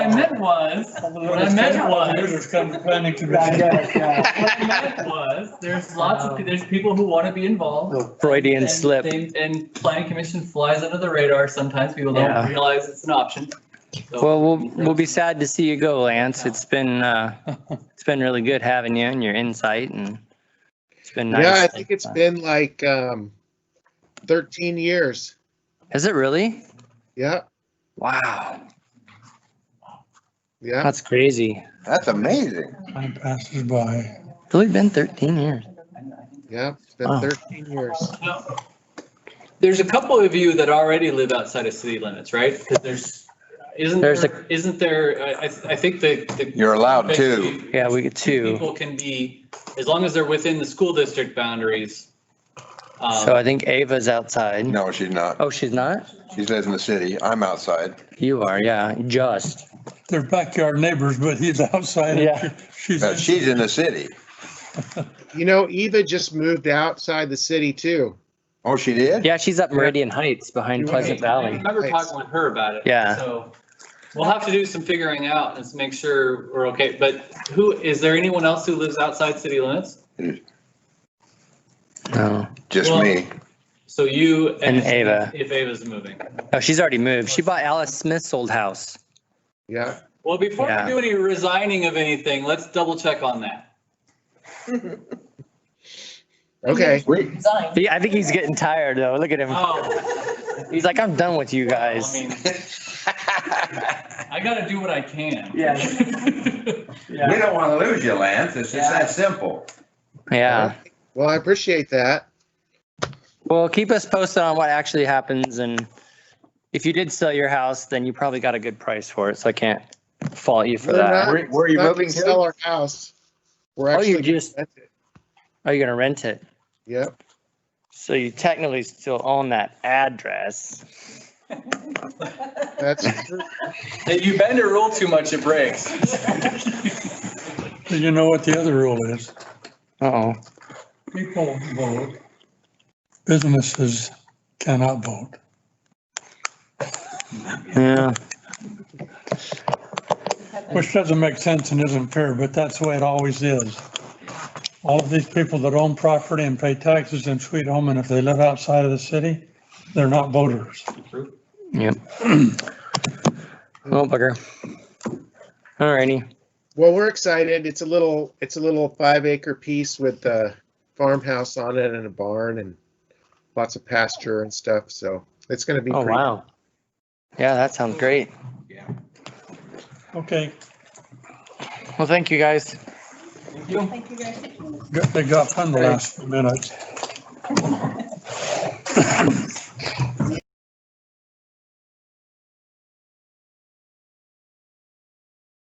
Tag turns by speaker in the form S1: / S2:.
S1: meant was, what I meant was,
S2: Users come to planning
S3: I
S2: commission.
S3: guess, yeah.
S1: what I meant was, there's lots of, there's people who want to be involved.
S4: Little Freudian
S1: and
S4: slip.
S1: they- And planning commission flies under the radar. Sometimes people don't
S4: Yeah.
S1: realize it's an option. So-
S4: Well, we'll, we'll be sad to see you go, Lance. It's been, uh, it's been really good having you and your insight and it's been nice.
S5: Yeah, I think it's been like um, 13 years.
S4: Is it really?
S5: Yeah,
S4: Wow,
S5: yeah.
S4: that's crazy.
S6: That's amazing.
S2: Time passes by.
S4: It's only been 13 years.
S5: Yeah, it's been
S4: Wow.
S5: 13 years.
S1: No. There's a couple of you that already live outside of city limits, right? Because there's, isn't
S4: There's a-
S1: there, isn't there, I, I I think the. the-
S6: You're allowed two.
S4: Yeah, we get two.
S1: People can be, as long as they're within the school district boundaries. um,
S4: So I think Ava's outside.
S6: No, she's not.
S4: Oh, she's not?
S6: She lives in the city. I'm outside.
S4: You are, yeah, just.
S2: They're backyard neighbors, but he's outside. and
S4: Yeah.
S2: She's.
S6: Uh, She's in the city.
S5: You know, Eva just moved outside the city too.
S6: Oh, she did?
S4: Yeah, she's up Meridian Heights behind
S5: You're
S4: Pleasant
S5: right.
S1: I
S4: Valley.
S1: remember talking with her about it.
S4: Yeah.
S1: So we'll have to do some figuring out and to make sure we're okay. But who, is there anyone else who lives outside city limits?
S4: No.
S6: Just
S1: Well-
S6: me.
S1: So you.
S4: And Ava.
S1: If Ava's moving.
S4: Oh, she's already moved. She bought Alice Smith's old house.
S5: Yeah.
S1: Well, before
S4: Yeah.
S1: we do any resigning of anything, let's double check on that.
S5: Okay.
S6: We,
S7: Design.
S4: He- I think he's getting tired though. Look at him.
S1: Oh,
S4: He's like, I'm done with you
S1: I
S4: guys.
S1: mean, I gotta do what I can.
S3: Yeah.
S6: we
S3: Yeah.
S6: don't want to lose you, Lance. It's just that simple.
S4: Yeah.
S5: Well, I appreciate that.
S4: Well, keep us posted on what actually happens and if you did sell your house, then you probably got a good price for it. So I can't fault you for
S5: We're
S4: that.
S5: not-
S6: Where- where are you
S5: not
S6: moving
S5: gonna
S6: to?
S5: Sell our house. We're
S4: Oh, you
S5: actually.
S4: just,
S5: That's it.
S4: are you gonna rent it?
S5: Yep.
S4: So you technically still own that address.
S5: That's true.
S1: Hey, you bend a rule too much, it breaks.
S2: You know what the other rule is?
S4: Oh,
S2: People vote. Businesses cannot vote.
S4: yeah.
S2: Which doesn't make sense and isn't fair, but that's the way it always is. All of these people that own property and pay taxes in Sweet Home, and if they live outside of the city, they're not voters.
S4: Yep. Oh, bugger. Alrighty.
S5: Well, we're excited. It's a little, it's a little five acre piece with a farmhouse on it and a barn and lots of pasture and stuff. So it's going to be.
S4: Oh,
S5: pretty-
S4: wow. Yeah, that sounds great.
S2: Okay,
S4: Well, thank you guys.
S7: Thank you guys.
S2: good- they got fun the last few minutes.